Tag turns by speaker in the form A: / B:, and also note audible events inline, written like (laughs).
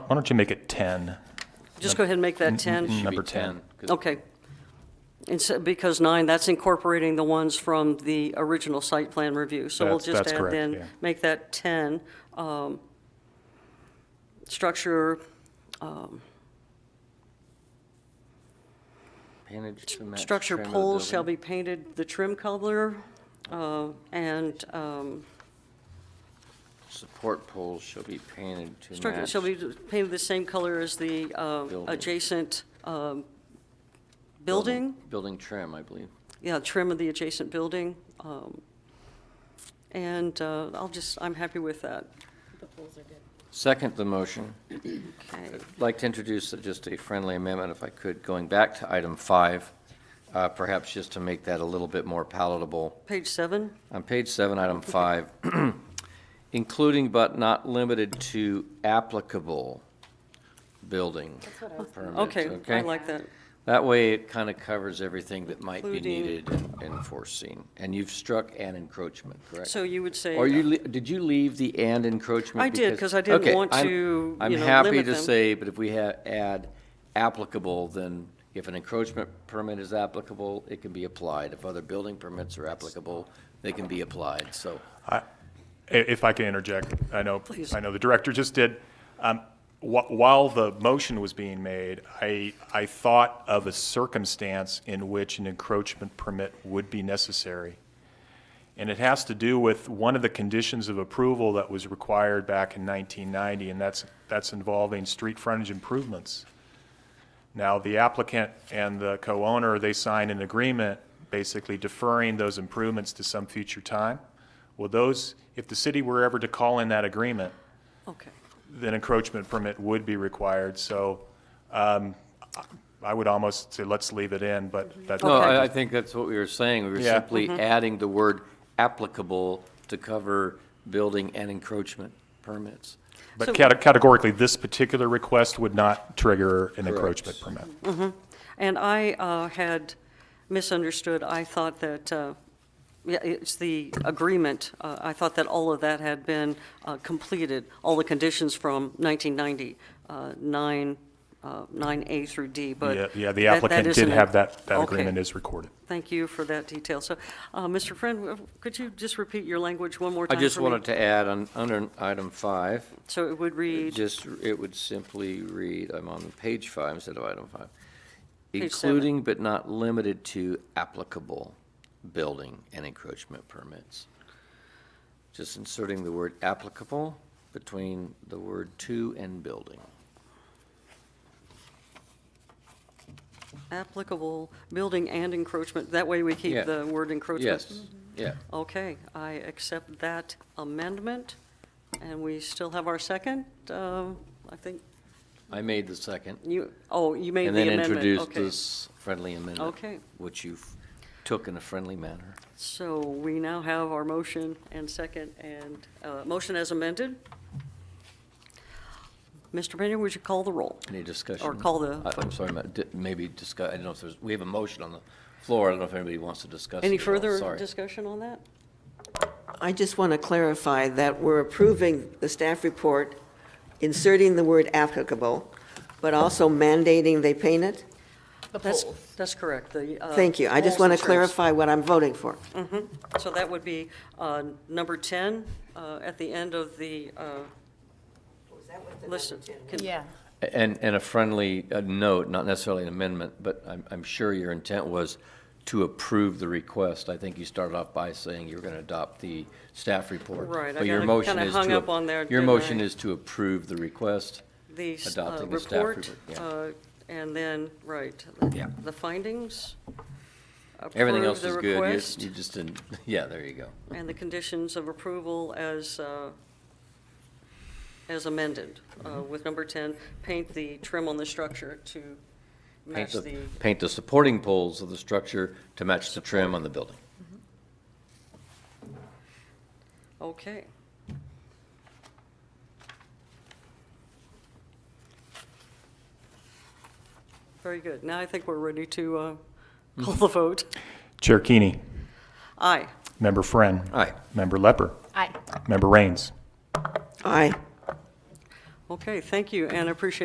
A: Why don't you make it 10?
B: Just go ahead and make that
A: mm,
B: 10.
A: Number
C: Should be
A: 10.
C: 'cause
B: Okay. And so- because nine, that's incorporating the ones from the original site plan review. So we'll
A: That's-
B: just
A: that's
B: add
A: correct,
B: then,
A: yeah.
B: make that 10. um, Structure,
C: Manage to match
B: structure
C: trim of the
B: poles shall
C: building.
B: be painted the trim color uh, and um,
C: Support poles shall be painted to
B: structure
C: match.
B: shall be painted the same color as the uh,
C: Building.
B: adjacent um, building.
C: Building trim, I believe.
B: yeah, trim of the adjacent building. um, And uh, I'll just, I'm happy with that.
C: Second the motion.
B: Okay.
C: I'd like to introduce just a friendly amendment, if I could, going back to item five, uh, perhaps just to make that a little bit more palatable.
B: Page seven,
C: On page seven, item five, (clears throat) including but not limited to applicable building permits, okay?
B: okay, I like that.
C: That way, it kind of covers everything that might be
B: Including-
C: needed and foreseen. And you've struck "and encroachment," correct?
B: So you would say,
C: Or you, le- did you leave the "and encroachment"?
B: I did, 'cause I didn't
C: Okay,
B: want
C: I'm-
B: to, you
C: I'm
B: know,
C: happy
B: limit
C: to
B: them.
C: say, but if we ha- add applicable, then if an encroachment permit is applicable, it can be applied. If other building permits are applicable, they can be applied, so.
A: I- If I can interject, I know,
B: Please.
A: I know the director just did. Um, wh- While the motion was being made, I, I thought of a circumstance in which an encroachment permit would be necessary. And it has to do with one of the conditions of approval that was required back in 1990, and that's, that's involving street frontage improvements. Now, the applicant and the co-owner, they signed an agreement basically deferring those improvements to some future time. Well, those, if the city were ever to call in that agreement,
B: okay,
A: then encroachment permit would be required. So um, I would almost say let's leave it in, but that's.
C: No,
B: Okay. Mm-hmm.
C: I, I think that's what we were saying. We were
A: Yeah.
C: simply adding the word applicable to cover building and encroachment permits.
B: So-
A: But cate- categorically, this particular request would not trigger an encroachment permit.
B: and I uh, had misunderstood, I thought that, uh, yeah, it's the agreement, Uh, I thought that all of that had been uh, completed, all the conditions from 1990, uh, nine, uh, 9A through D, but.
A: Yeah, uh, yeah, the
B: that- that
A: applicant did
B: isn't it.
A: have that, that
B: Okay.
A: agreement is recorded.
B: Thank you for that detail. So, uh, Mr. Friend, uh, could you just repeat your language one more
C: I
B: time
C: just
B: for me?
C: wanted to add on, under item five,
B: So it would
C: it
B: read,
C: just, it would simply read, I'm on page five instead of item five.
B: Page seven.
C: Including but not limited to applicable building and encroachment permits. Just inserting the word applicable between the word to and building.
B: applicable building and encroachment, that way we keep
C: Yeah.
B: the word encroachment?
C: Yes, yeah.
B: Okay, I accept that amendment, and we still have our second, um, I think,
C: I made the second.
B: you, oh, you made the
C: And then
B: amendment, okay.
C: introduced this friendly amendment.
B: Okay.
C: Which you f- took in a friendly manner.
B: So we now have our motion and second, and, uh, motion as amended. Mr. Pena, would you call the roll?
C: Any discussion?
B: Or call the-
C: I- I'm sorry, ma- di- maybe discuss, I don't know if there's, we have a motion on the floor, I don't know if anybody wants to discuss.
B: Any
C: it at all.
B: further
C: Sorry.
B: discussion on that?
D: I just want to clarify that we're approving the staff report, inserting the word applicable, but also mandating they paint it?
B: That's, that's correct, the. uh,
D: Oh. Thank you. I just
B: polls
D: want to
B: insurance.
D: clarify what I'm voting for.
B: So that would be uh, number 10 uh, at the end of the uh, list. Can-
E: Yeah,
C: And, and a friendly uh, note, not necessarily an amendment, but I'm, I'm sure your intent was to approve the request. I think you started off by saying you were going to adopt the staff report.
B: Right, I
C: But your
B: got-
C: motion
B: kinda
C: is to
B: hung up
C: ap-
B: on there,
C: Your
B: didn't
C: motion
B: I?
C: is to approve the request.
B: The s- uh,
C: Adopting the staff
B: report,
C: report, yeah.
B: uh, and then, right,
C: Yeah.
B: the findings.
C: Everything
B: approve
C: else
B: the
C: is good.
B: request,
C: You- You just didn't, (laughs) yeah, there you go.
B: And the conditions of approval as, uh, as amended, uh,
C: Mm-hmm.
B: with number 10, paint the trim on the structure to
C: Paint
B: match
C: the,
B: the,
C: paint the supporting poles of the structure to match the trim on the building.
B: okay. Very good. Now I think we're ready to uh, call the vote.
A: Chair Keeney,
B: Aye.
A: Member Friend.
C: Aye.
A: Member Lepper,
E: aye.
A: Member Rains.
D: Aye.
B: Okay, thank you, and I appreciate